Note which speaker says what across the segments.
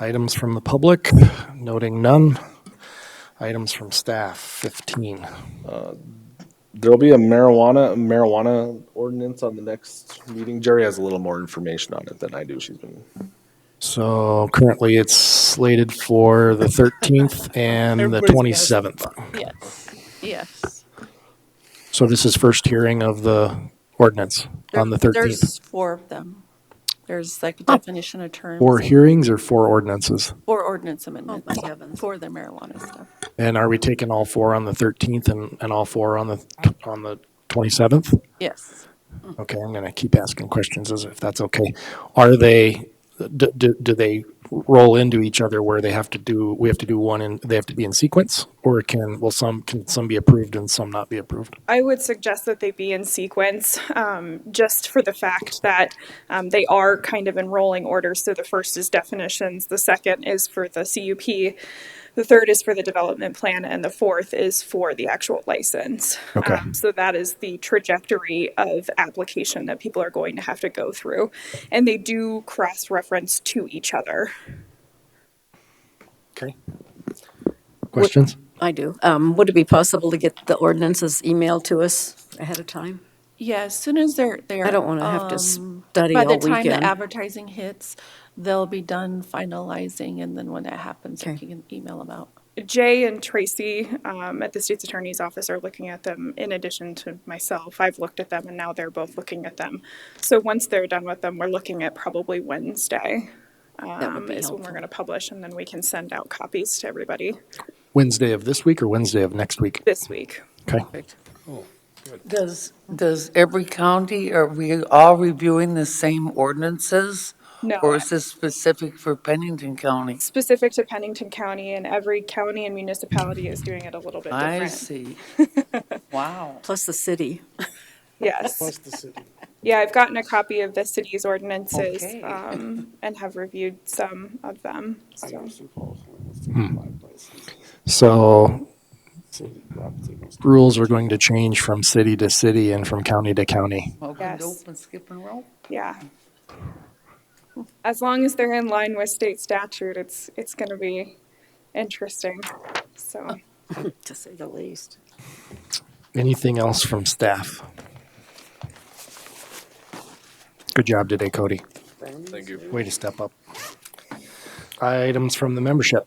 Speaker 1: Items from the public, noting none. Items from staff, 15.
Speaker 2: There'll be a marijuana marijuana ordinance on the next meeting. Jerry has a little more information on it than I do. She's been
Speaker 1: So currently it's slated for the 13th and the
Speaker 3: Everybody's
Speaker 1: 27th.
Speaker 3: Yes, yes.
Speaker 1: So this is first hearing of the ordinance on the
Speaker 3: There-
Speaker 1: 13th.
Speaker 3: There's four of them. There's like a
Speaker 4: Oh.
Speaker 3: definition of terms.
Speaker 1: Four hearings or four ordinances?
Speaker 3: Four ordinance amendment,
Speaker 4: Oh.
Speaker 3: for the marijuana stuff.
Speaker 1: And are we taking all four on the 13th and, and all four on the, on the 27th?
Speaker 3: Yes.
Speaker 1: Okay, I'm going to keep asking questions as if that's okay. Are they, do, do, do they roll into each other where they have to do, we have to do one and they have to be in sequence? Or can, will some, can some be approved and some not be approved?
Speaker 5: I would suggest that they be in sequence, um, just for the fact that um, they are kind of in rolling order. So the first is definitions, the second is for the CUP, the third is for the development plan, and the fourth is for the actual license.
Speaker 1: Okay.
Speaker 5: Um, so that is the trajectory of application that people are going to have to go through. And they do cross reference to each other.
Speaker 1: Okay. Questions?
Speaker 4: I do. Um, Would it be possible to get the ordinances emailed to us ahead of time?
Speaker 3: Yeah, as soon as they're, they're.
Speaker 4: I don't want to have to
Speaker 3: um,
Speaker 4: study
Speaker 3: By
Speaker 4: all
Speaker 3: the
Speaker 4: weekend.
Speaker 3: time the advertising hits, they'll be done finalizing, and then when that happens, I
Speaker 4: Okay.
Speaker 3: can email them out.
Speaker 5: Jay and Tracy um, at the state's attorney's office are looking at them in addition to myself. I've looked at them and now they're both looking at them. So once they're done with them, we're looking at probably Wednesday
Speaker 4: That would
Speaker 5: um,
Speaker 4: be
Speaker 5: is when we're
Speaker 4: helpful.
Speaker 5: going to publish and then we can send out copies to everybody
Speaker 1: Wednesday of this week or Wednesday of next week?
Speaker 5: this week.
Speaker 1: Okay.
Speaker 6: Does, does every county, are we all reviewing the same ordinances?
Speaker 5: No,
Speaker 6: Or is this specific for Pennington County?
Speaker 5: specific to Pennington County and every county and municipality is doing it a little bit
Speaker 6: I
Speaker 5: different.
Speaker 6: see. Wow.
Speaker 4: Plus the city.
Speaker 5: Yes. Yeah, I've gotten a copy of the city's ordinances
Speaker 6: Okay.
Speaker 5: um, and have reviewed some of them. So.
Speaker 1: So rules are going to change from city to city and from county to county.
Speaker 6: Welcome to
Speaker 5: Yes.
Speaker 6: open skipping rope.
Speaker 5: Yeah. As long as they're in line with state statute, it's, it's gonna be interesting, so.
Speaker 4: To say the least.
Speaker 1: Anything else from staff? Good job today, Cody.
Speaker 2: thank you.
Speaker 1: Way to step up. Items from the membership.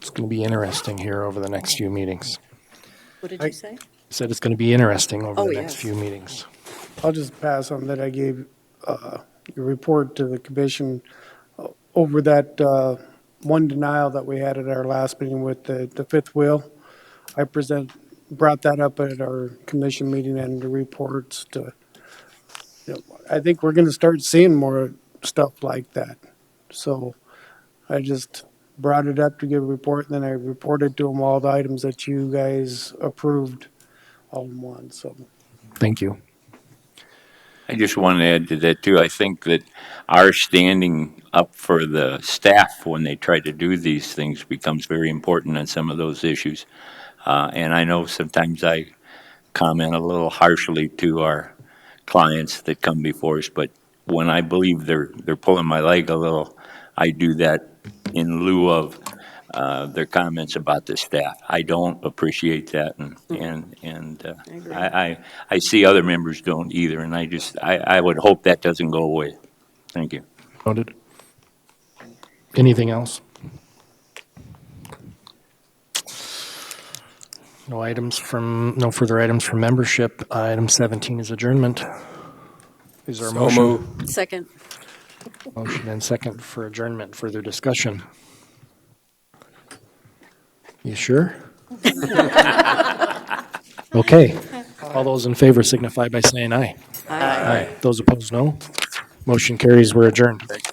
Speaker 1: It's going to be interesting here over the next few meetings.
Speaker 4: What did you say?
Speaker 1: Said it's going to be interesting over
Speaker 4: Oh,
Speaker 1: the next
Speaker 4: yes.
Speaker 1: few meetings.
Speaker 7: I'll just pass on that I gave uh, your report to the commission uh, over that uh, one denial that we had at our last meeting with the the fifth wheel. I present, brought that up at our commission meeting and the reports to, you know, I think we're going to start seeing more stuff like that. So I just brought it up to give a report, and then I reported to them all the items that you guys approved all in one, so.
Speaker 1: Thank you.
Speaker 8: I just want to add to that too. I think that our standing up for the staff when they try to do these things becomes very important on some of those issues. Uh, and I know sometimes I comment a little harshly to our clients that come before us, but when I believe they're they're pulling my leg a little, I do that in lieu of uh, their comments about the staff. I don't appreciate that, and and and uh, I, I I see other members don't either, and I just I, I would hope that doesn't go away. Thank you.
Speaker 1: Noted. Anything else? No items from, no further items from membership. Item 17 is adjournment. Is there a motion?
Speaker 4: Second.
Speaker 1: Motion and second for adjournment. Further discussion? You sure? Okay. All those in favor signify by saying aye. Aye. Those opposed, no. Motion carries. We're adjourned.